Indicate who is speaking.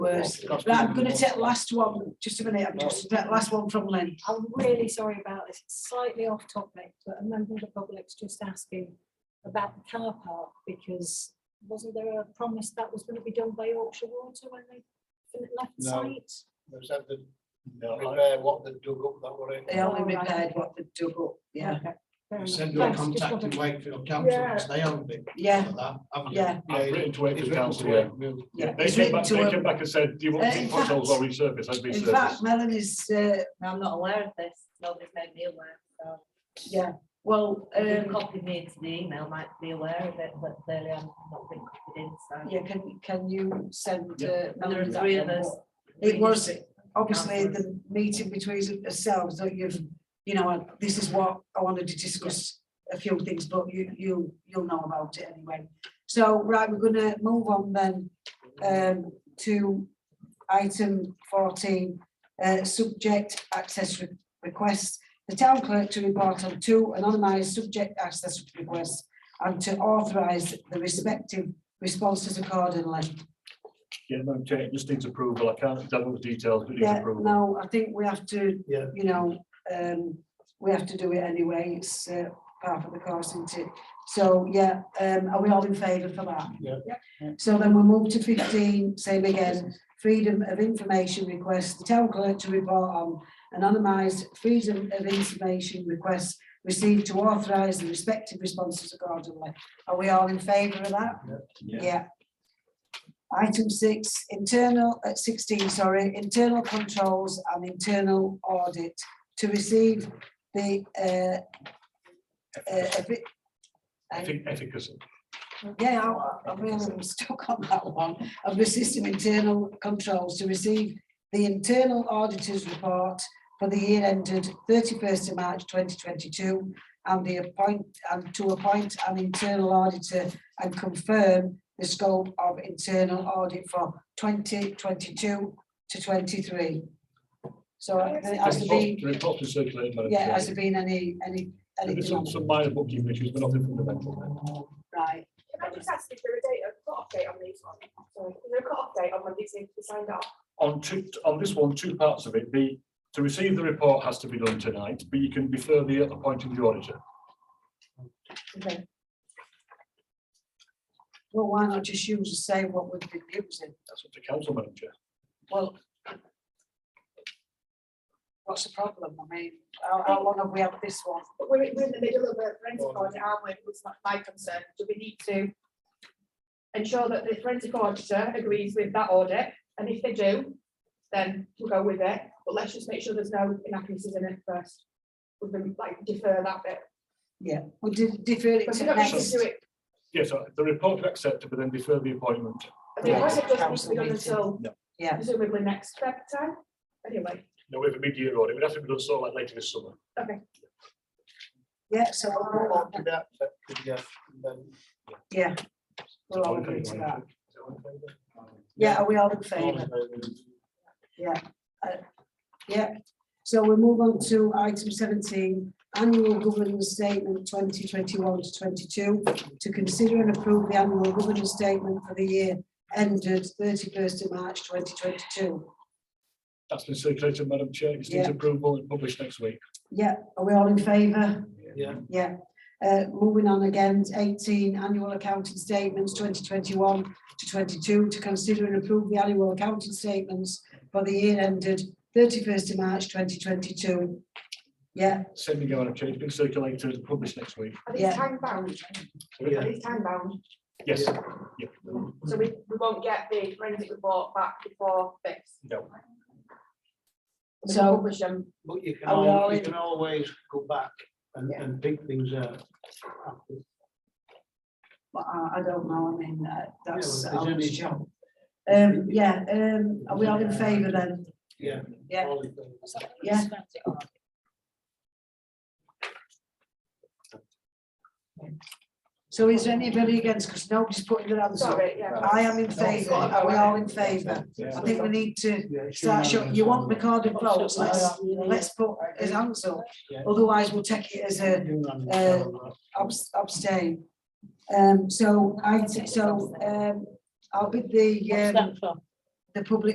Speaker 1: worse. Right, I'm gonna take last one, just a minute, I'm just, that last one from Lynn.
Speaker 2: I'm really sorry about this, it's slightly off topic, but a member of the public's just asking about the car park, because wasn't there a promise that was gonna be done by Yorkshire Water when they when it left
Speaker 3: No.
Speaker 2: site?
Speaker 3: There's that the, repair what they dug up that were in.
Speaker 1: They only
Speaker 2: Oh, right.
Speaker 1: repaired what they dug up, yeah,
Speaker 2: Okay,
Speaker 4: You
Speaker 2: fair enough.
Speaker 4: said you're
Speaker 2: Thanks, just
Speaker 4: contacting
Speaker 2: wondered-
Speaker 4: Wakefield Council, because they own it.
Speaker 1: yeah,
Speaker 4: for that, haven't you?
Speaker 1: yeah,
Speaker 3: Yeah,
Speaker 5: I've written to
Speaker 3: it's
Speaker 5: Wakefield
Speaker 3: written
Speaker 5: Council,
Speaker 3: to
Speaker 5: yeah.
Speaker 3: Wakefield.
Speaker 1: yeah.
Speaker 5: They
Speaker 1: It's
Speaker 5: came
Speaker 1: written
Speaker 5: back,
Speaker 1: to
Speaker 5: they came
Speaker 1: them.
Speaker 5: back and said, do you
Speaker 1: Uh,
Speaker 5: want
Speaker 1: in
Speaker 5: to put those
Speaker 1: fact-
Speaker 5: or resurface, I've been
Speaker 1: In
Speaker 5: serviced.
Speaker 1: fact, Melanie's, uh,
Speaker 6: I'm not aware of this, nobody's made me aware, so.
Speaker 1: yeah, well,
Speaker 6: Who
Speaker 1: um,
Speaker 6: copied me into the email might be aware of it, but clearly I'm not being copied in, so.
Speaker 1: yeah, can, can you send? uh,
Speaker 6: And there are
Speaker 1: Melanie that
Speaker 6: three of
Speaker 1: one?
Speaker 6: us.
Speaker 1: It was
Speaker 6: Three different
Speaker 1: obviously
Speaker 6: councillors.
Speaker 1: the meeting between ourselves that you've, you know, and this is what I wanted to discuss a few things, but you, you, you'll know about it anyway. So, right, we're gonna move on then, um, to item fourteen, uh, subject access re- requests. The town clerk to report on two anonymised subject access requests and to authorize the respective responses accordingly.
Speaker 5: Yeah, Madam Chair, it just needs approval. I can't divulge details, but it needs
Speaker 1: Yeah,
Speaker 5: approval.
Speaker 1: no, I think we have to,
Speaker 3: Yeah.
Speaker 1: you know, um, we have to do it anyway, it's uh, part of the course, isn't it? So, yeah, um, are we all in favour for that?
Speaker 3: Yeah.
Speaker 1: So then we'll move to fifteen, same again, freedom of information request, the town clerk to report on anonymised freedom of information requests received to authorise the respective responses accordingly. Are we all in favour of that? Yeah. Item six, internal, at sixteen, sorry, internal controls and internal audit to receive the, uh, uh, evi-
Speaker 5: I think efficacy.
Speaker 1: yeah, I- I really am stuck on that one, of the system internal controls to receive the internal auditor's report for the year ended thirty-first of March twenty twenty-two and the appoint, and to appoint an internal auditor and confirm the scope of internal audit for twenty twenty-two to twenty-three. So has there
Speaker 5: The
Speaker 1: been,
Speaker 5: report is circulated, Madam
Speaker 1: yeah,
Speaker 5: Chair.
Speaker 1: has there been any, any,
Speaker 5: There's
Speaker 1: anything
Speaker 5: some,
Speaker 1: on
Speaker 5: some minor bookkeeping issues, but nothing fundamental.
Speaker 1: that? right?
Speaker 7: Can I just ask if there a date, a cut-off date on these ones? Sorry, is there a cut-off date on when these need to be signed off?
Speaker 5: On two, on this one, two parts of it, the, to receive the report has to be done tonight, but you can defer the appointing the auditor.
Speaker 1: Well, why not just use the same what we've been using?
Speaker 5: That's up to council, Madam Chair.
Speaker 1: Well. What's the problem? I mean, how, how long have we had this one?
Speaker 7: But we're, we're in the middle of a forensic audit, aren't we? It's not my concern. Do we need to ensure that the forensic auditor agrees with that audit? And if they do, then we'll go with it. But let's just make sure there's no inaccuracies in it first. We can like defer that bit.
Speaker 1: Yeah, we did defer it
Speaker 7: But
Speaker 1: to
Speaker 7: we don't need to
Speaker 1: next.
Speaker 7: do it.
Speaker 5: Yes, uh, the report accepted, but then defer the appointment.
Speaker 7: The
Speaker 1: Yeah,
Speaker 7: audit doesn't need to
Speaker 1: council
Speaker 7: be done
Speaker 1: meeting.
Speaker 7: until
Speaker 1: Yeah.
Speaker 7: presumably next Feb time. Anyway,
Speaker 5: No, we have a mid-year audit. We'd have to be done sort of like later this summer.
Speaker 1: Yeah, so we'll move on.
Speaker 3: To be accepted, yeah, and then-
Speaker 1: yeah. We're all agreed to that. Yeah, are we all in favour? Yeah. So we'll move on to item seventeen, annual governance statement twenty twenty-one to twenty-two. To consider and approve the annual governance statement for the year ended thirty-first of March twenty twenty-two.
Speaker 5: That's been circulated, Madam Chair. It's needs
Speaker 1: Yeah.
Speaker 5: approval and published next week.
Speaker 1: Yeah, are we all in favour?
Speaker 3: Yeah,
Speaker 1: Yeah, uh, moving on again, eighteen annual accounting statements, twenty twenty-one to twenty-two, to consider and approve the annual accounting statements for the year ended thirty-first of March, twenty twenty-two. Yeah,
Speaker 5: Send me, Madam Chair. It's been circulated and published next week.
Speaker 7: are these
Speaker 1: Yeah.
Speaker 7: time bound? Are
Speaker 3: Yeah.
Speaker 7: these time bound?
Speaker 5: Yes,
Speaker 7: So we, we won't get the forensic report back before this.
Speaker 5: no.
Speaker 7: We
Speaker 1: So-
Speaker 7: can Publish them.
Speaker 3: but you can,
Speaker 1: Are we all
Speaker 3: al- you
Speaker 1: in?
Speaker 3: can always go back and,
Speaker 7: Yeah.
Speaker 3: and pick things out.
Speaker 1: but I, I don't know, I mean, uh,
Speaker 3: Yeah,
Speaker 1: that's.
Speaker 3: well, if there's any-
Speaker 1: Um, yeah, um, are we all in favour then?
Speaker 3: Yeah.
Speaker 1: Yeah.
Speaker 3: all in favour.
Speaker 1: Yeah. So is there anybody against, because nobody's putting their hands up?
Speaker 7: Sorry, yeah.
Speaker 1: I am in
Speaker 3: Oh,
Speaker 1: favour, are we all in favour? I think we need to
Speaker 3: Yeah, it's
Speaker 1: Start showing, you want recorded votes, let's, let's put his hands up,
Speaker 3: Yeah.
Speaker 1: otherwise we'll take it as a
Speaker 3: unanimous.
Speaker 1: uh, abs- abstain. Um, so I, so, um, I'll be the, um, the public